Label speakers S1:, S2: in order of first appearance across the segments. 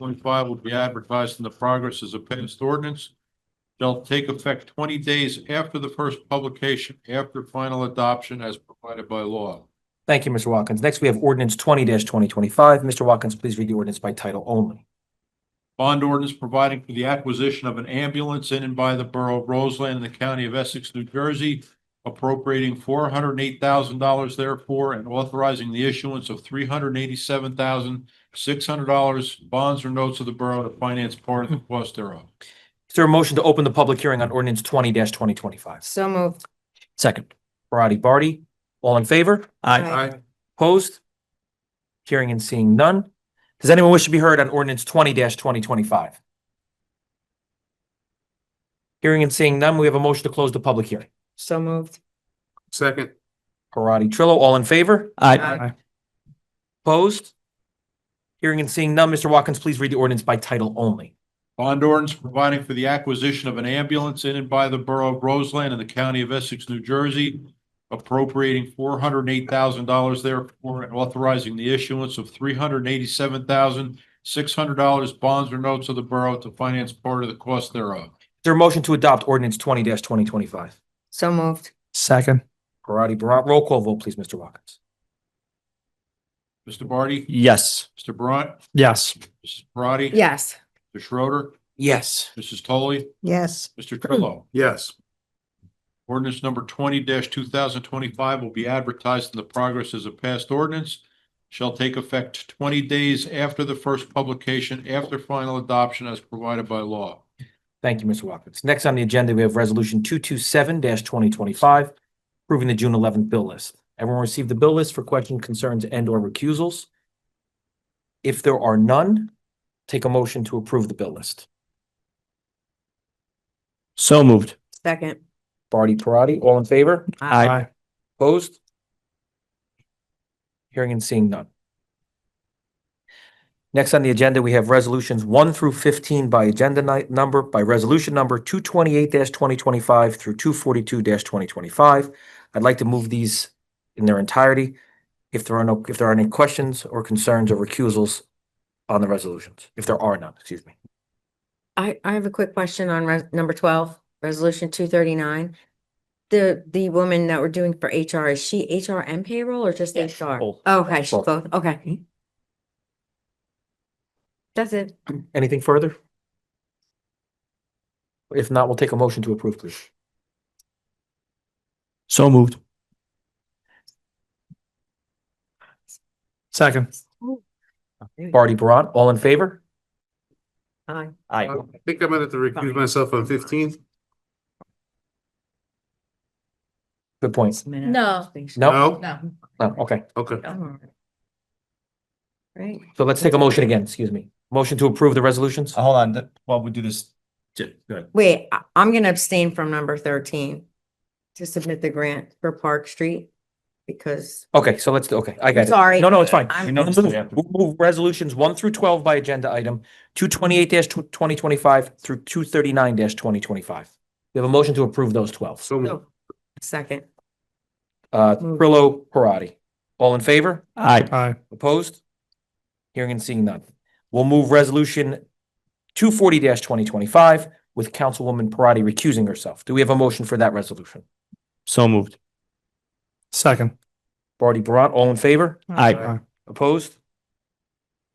S1: twenty-five will be advertised in the progress as a passed ordinance. Shall take effect twenty days after the first publication, after final adoption as provided by law.
S2: Thank you, Mr. Watkins. Next, we have ordinance twenty twenty twenty-five. Mr. Watkins, please read the ordinance by title only.
S1: Bond ordinance providing for the acquisition of an ambulance in and by the borough of Roseland in the county of Essex, New Jersey, appropriating four hundred and eight thousand dollars therefore and authorizing the issuance of three hundred and eighty-seven thousand six hundred dollars bonds or notes of the borough to finance part of the cost thereof.
S2: Is there a motion to open the public hearing on ordinance twenty twenty twenty-five?
S3: So moved.
S2: Second, Parati, Barty, all in favor?
S3: Aye.
S2: Opposed? Hearing and seeing none. Does anyone wish to be heard on ordinance twenty twenty twenty-five? Hearing and seeing none, we have a motion to close the public hearing.
S3: So moved.
S4: Second.
S2: Parati, Trillo, all in favor?
S3: Aye.
S2: Opposed? Hearing and seeing none, Mr. Watkins, please read the ordinance by title only.
S1: Bond ordinance providing for the acquisition of an ambulance in and by the borough of Roseland in the county of Essex, New Jersey, appropriating four hundred and eight thousand dollars therefore and authorizing the issuance of three hundred and eighty-seven thousand six hundred dollars bonds or notes of the borough to finance part of the cost thereof.
S2: Is there a motion to adopt ordinance twenty twenty twenty-five?
S3: So moved.
S4: Second.
S2: Parati, Barat, roll call vote, please, Mr. Watkins.
S1: Mr. Barty?
S4: Yes.
S1: Mr. Brant?
S4: Yes.
S1: Mrs. Parati?
S3: Yes.
S1: Mr. Schroeder?
S2: Yes.
S1: Mrs. Toley?
S3: Yes.
S1: Mr. Trillo?
S4: Yes.
S1: Ordinance number twenty two thousand twenty-five will be advertised in the progress as a passed ordinance. Shall take effect twenty days after the first publication, after final adoption as provided by law.
S2: Thank you, Mr. Watkins. Next on the agenda, we have Resolution two-two-seven twenty twenty-five, approving the June eleventh bill list. Everyone received the bill list for questions, concerns, and/or recusals. If there are none, take a motion to approve the bill list.
S4: So moved.
S3: Second.
S2: Barty, Parati, all in favor? Opposed? Hearing and seeing none. Next on the agenda, we have resolutions one through fifteen by agenda ni- number, by resolution number two twenty-eight twenty twenty-five through two forty-two twenty twenty-five. I'd like to move these in their entirety. If there are no, if there are any questions or concerns or recusals on the resolutions, if there are none, excuse me.
S3: I, I have a quick question on res- number twelve, resolution two thirty-nine. The, the woman that we're doing for HR, is she HR and payroll or just
S2: Yes,
S3: HR?
S2: both.
S3: Okay, she's
S2: Both.
S3: both, okay. That's it.
S2: Anything further? If not, we'll take a motion to approve, please.
S4: So moved. Second.
S2: Barty, Barat, all in favor?
S3: Aye.
S4: I think I might have to recuse myself on fifteen.
S2: Good point.
S3: No.
S2: No,
S4: No.
S2: no, okay.
S4: Okay.
S3: Right,
S2: So let's take a motion again, excuse me. Motion to approve the resolutions?
S5: Uh, Hold on, th- while we do this. j- Good.
S3: wait, I, I'm gonna abstain from number thirteen to submit the grant for Park Street because
S2: Okay, so let's, do- okay, I got it.
S3: Sorry.
S2: No, no, it's fine.
S3: I'm-
S5: We
S2: We'll
S5: noticed that we
S2: Move
S5: have to-
S2: we'll move resolutions one through twelve by agenda item, two twenty-eight twenty twenty-five through two thirty-nine twenty twenty-five. We have a motion to approve those twelve.
S4: So moved.
S3: second,
S2: Uh,
S3: Move.
S2: Prillo, Parati. All in favor?
S5: Aye.
S4: Aye.
S2: Opposed? Hearing and seeing none. We'll move resolution two forty twenty twenty-five with Councilwoman Parati recusing herself. Do we have a motion for that resolution?
S5: So moved.
S4: Second.
S2: Barty, Barat, all in favor?
S5: Aye.
S2: Opposed?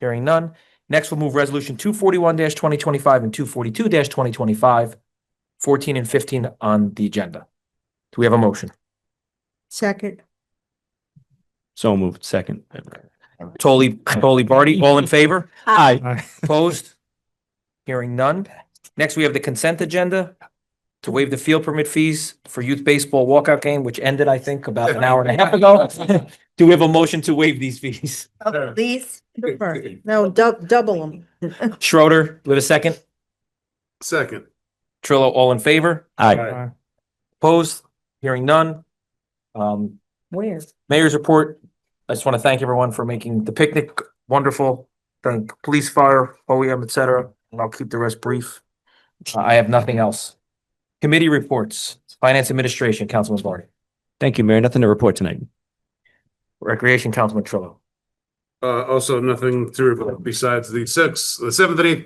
S2: Hearing none. Next, we'll move resolution two forty-one twenty twenty-five and two forty-two twenty twenty-five, fourteen and fifteen on the agenda. Do we have a motion?
S3: second,
S5: So moved, second.
S2: Tolly, Tolly Barty, all in favor?
S5: Aye.
S4: Aye.
S2: Opposed? Hearing none. Next, we have the consent agenda to waive the field permit fees for youth baseball walkout game, which ended, I think, about an hour and a half ago. Do we have a motion to waive these fees?
S3: please.
S6: No, dou- double them.
S2: Schroeder, with a second.
S4: Second.
S2: Trillo, all in favor?
S5: Aye.
S2: Opposed? Hearing none. Um,
S3: Where?
S2: mayor's report. I just want to thank everyone for making the picnic wonderful. Thank police, fire, OEM, et cetera, and I'll keep the rest brief. Uh, I have nothing else. Committee reports, Finance Administration, Councilman Barney,
S5: Thank you, Mayor. Nothing to report tonight.
S2: Recreation, Councilman Trillo,
S4: Uh, also nothing to report besides the sixth, the seventh and eighth